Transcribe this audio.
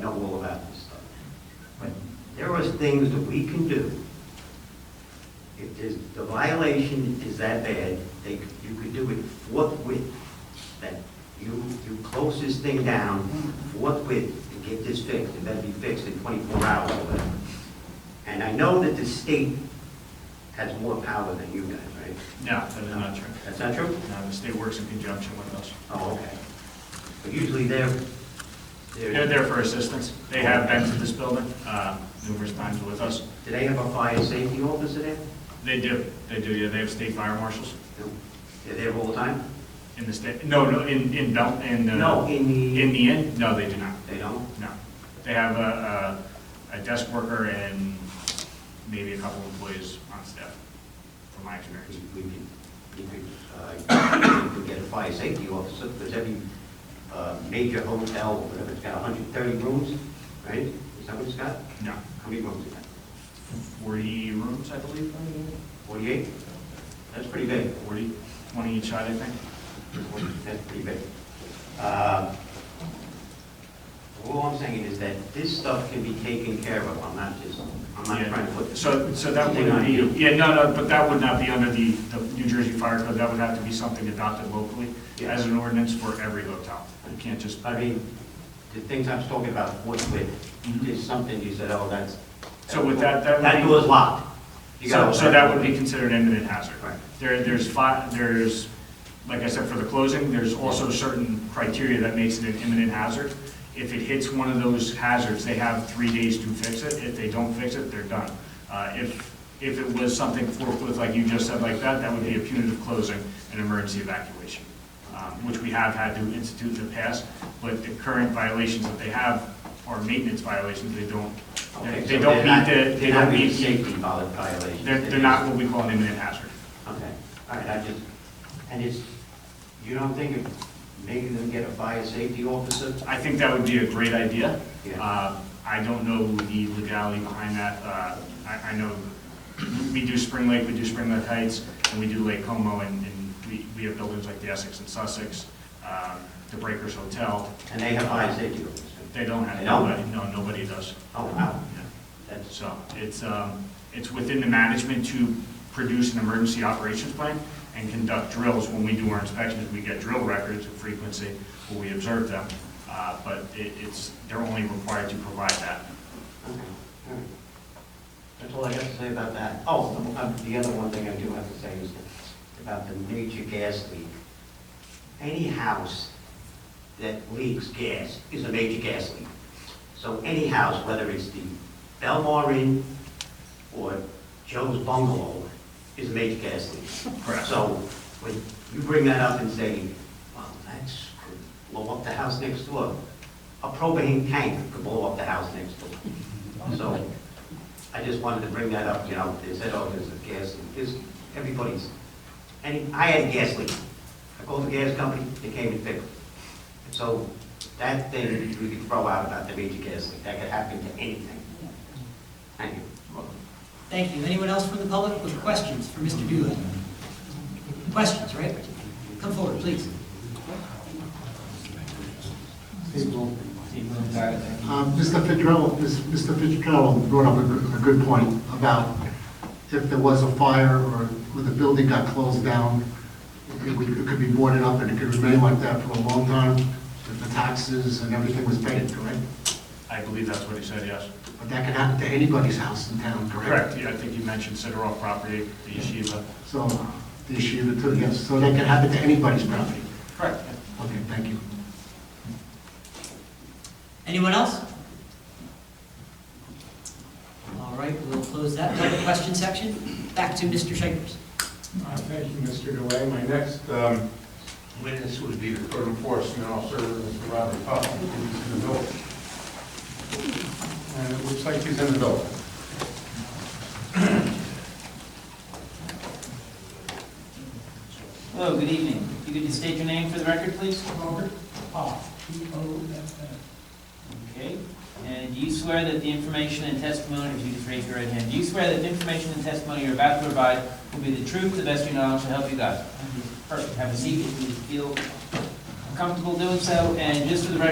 know all about this stuff. But there are things that we can do. If there's, the violation is that bad, they, you could do it forthwith. That you, you close this thing down forthwith and get this fixed, and that'd be fixed in twenty-four hours or whatever. And I know that the state has more power than you guys, right? No, that is not true. That's not true? No, the state works in conjunction with us. Oh, okay. But usually they're, They're they're, do there for assistance. They have been to this building uh, numerous times with us. they have a fire safety officer there? They do, they do, yeah, they have state fire marshals No. They're there all the time? in the state, no, no, in, in Bel, in, uh, No, in in the, the end, no, they do not, they don't? no. They have a, a a desk worker and maybe a couple of employees on staff, from my experience. We we could, you could, uh, you could get a fire safety officer, because every uh, major hotel, or whatever, it's got 130 rooms, right? Is that what it's got? No, How many rooms is that? forty rooms, I believe, 48? That's pretty big. forty, twenty each side, I think. That's pretty big. Uh, All I'm saying is that this stuff can be taken care of. I'm not just, I'm not Yeah. trying to put this. So, so that Thing would on be, you. yeah, no, no, but that would not be under the, the New Jersey Fire Code, that would have to be something adopted locally Yeah. as an ordinance for every hotel. You can't just, I mean, the things I was talking about, what with, is something you said, oh, that's. Mm-hmm. So with that- that would That be- door's locked. You so, gotta- so that would be considered imminent hazard. Right. There, there's five, there's, like I said, for the closing, there's also certain criteria that makes it an imminent hazard. If it hits one of those hazards, they have three days to fix it, if they don't fix it, they're done. Uh, if, if it was something forthwith, like you just said, like that, that would be a punitive closing and emergency evacuation. um, which we have had to institute in the past, but the current violations that they have are maintenance violations, they don't, Okay, they so don't they're meet not- the, they they're not don't meet being the, Safety vol- violations. they're, they're not what we call an imminent hazard. Okay, all right, I just, and it's, you don't think of making them get a fire safety officer? I think that would be a great idea. Yeah. Uh, I don't know the legality behind that. Uh, I, I know we do Spring Lake, we do Spring Lake Heights, and we do Lake Como, and, and we, we have buildings like the Essex and Sussex, um, the Breakers Hotel. And they have fire safety officers? They don't have, They don't? nobody, no, nobody does. Oh, wow, Yeah. that's, So it's, um, it's within the management to produce an emergency operations plan and conduct drills. When we do our inspections, we get drill records of frequency, where we observe them. Uh, But it- it's, they're only required to provide that. okay, all right. That's all I got to say about that. Oh, um, uh, the other one thing I do have to say is about the major gas leak. Any house that leaks gas is a major gas leak. So any house, whether it's the Belmar Inn or Joe's Bungalow, is a major gas leak. Correct. So when you bring that up and say, well, that's, could blow up the house next door, a propane tank could blow up the house next door. So I just wanted to bring that up, you know, they said, oh, there's a gas leak, there's, everybody's, any, I had a gas leak. I called the gas company, they came and fixed it. So that thing we could throw out about the major gas leak, that could happen to anything. Thank you. Thank you. Anyone else from the public with questions for Mr. Doolittle? Questions, right? Come forward, please. Uh, Mr. Fitzgerald, Ms- Mr. Fitzgerald brought up a good- a good point about if there was a fire or when the building got closed down, it would- it could be boarded up and it could remain like that for a long time if the taxes and everything was paid, correct? I believe that's what he said, yes. But that could happen to anybody's house in town, correct? Correct, yeah, I think you mentioned Sidoroff property, the yeshiva. So uh, the issue, too, yes, so that could happen to anybody's property. Correct. Okay, thank you. Anyone else? All right, we'll close that public question section. Back to Mr. Shakers. Uh, Thank you, Mr. Delay. My next um, witness would be the code enforcement officer, Mr. Robert Puffin, who's in the building. And it looks like he's in the building. Hello, good evening. If you could just state your name for the record, please? Robert Okay, and do you swear that the information and testimony, if you just raise your right hand, do you swear that the information and testimony you're about to provide will be the truth, the best of your knowledge, to help you God? Perfect, have a seat if you feel comfortable doing so, and just for the record,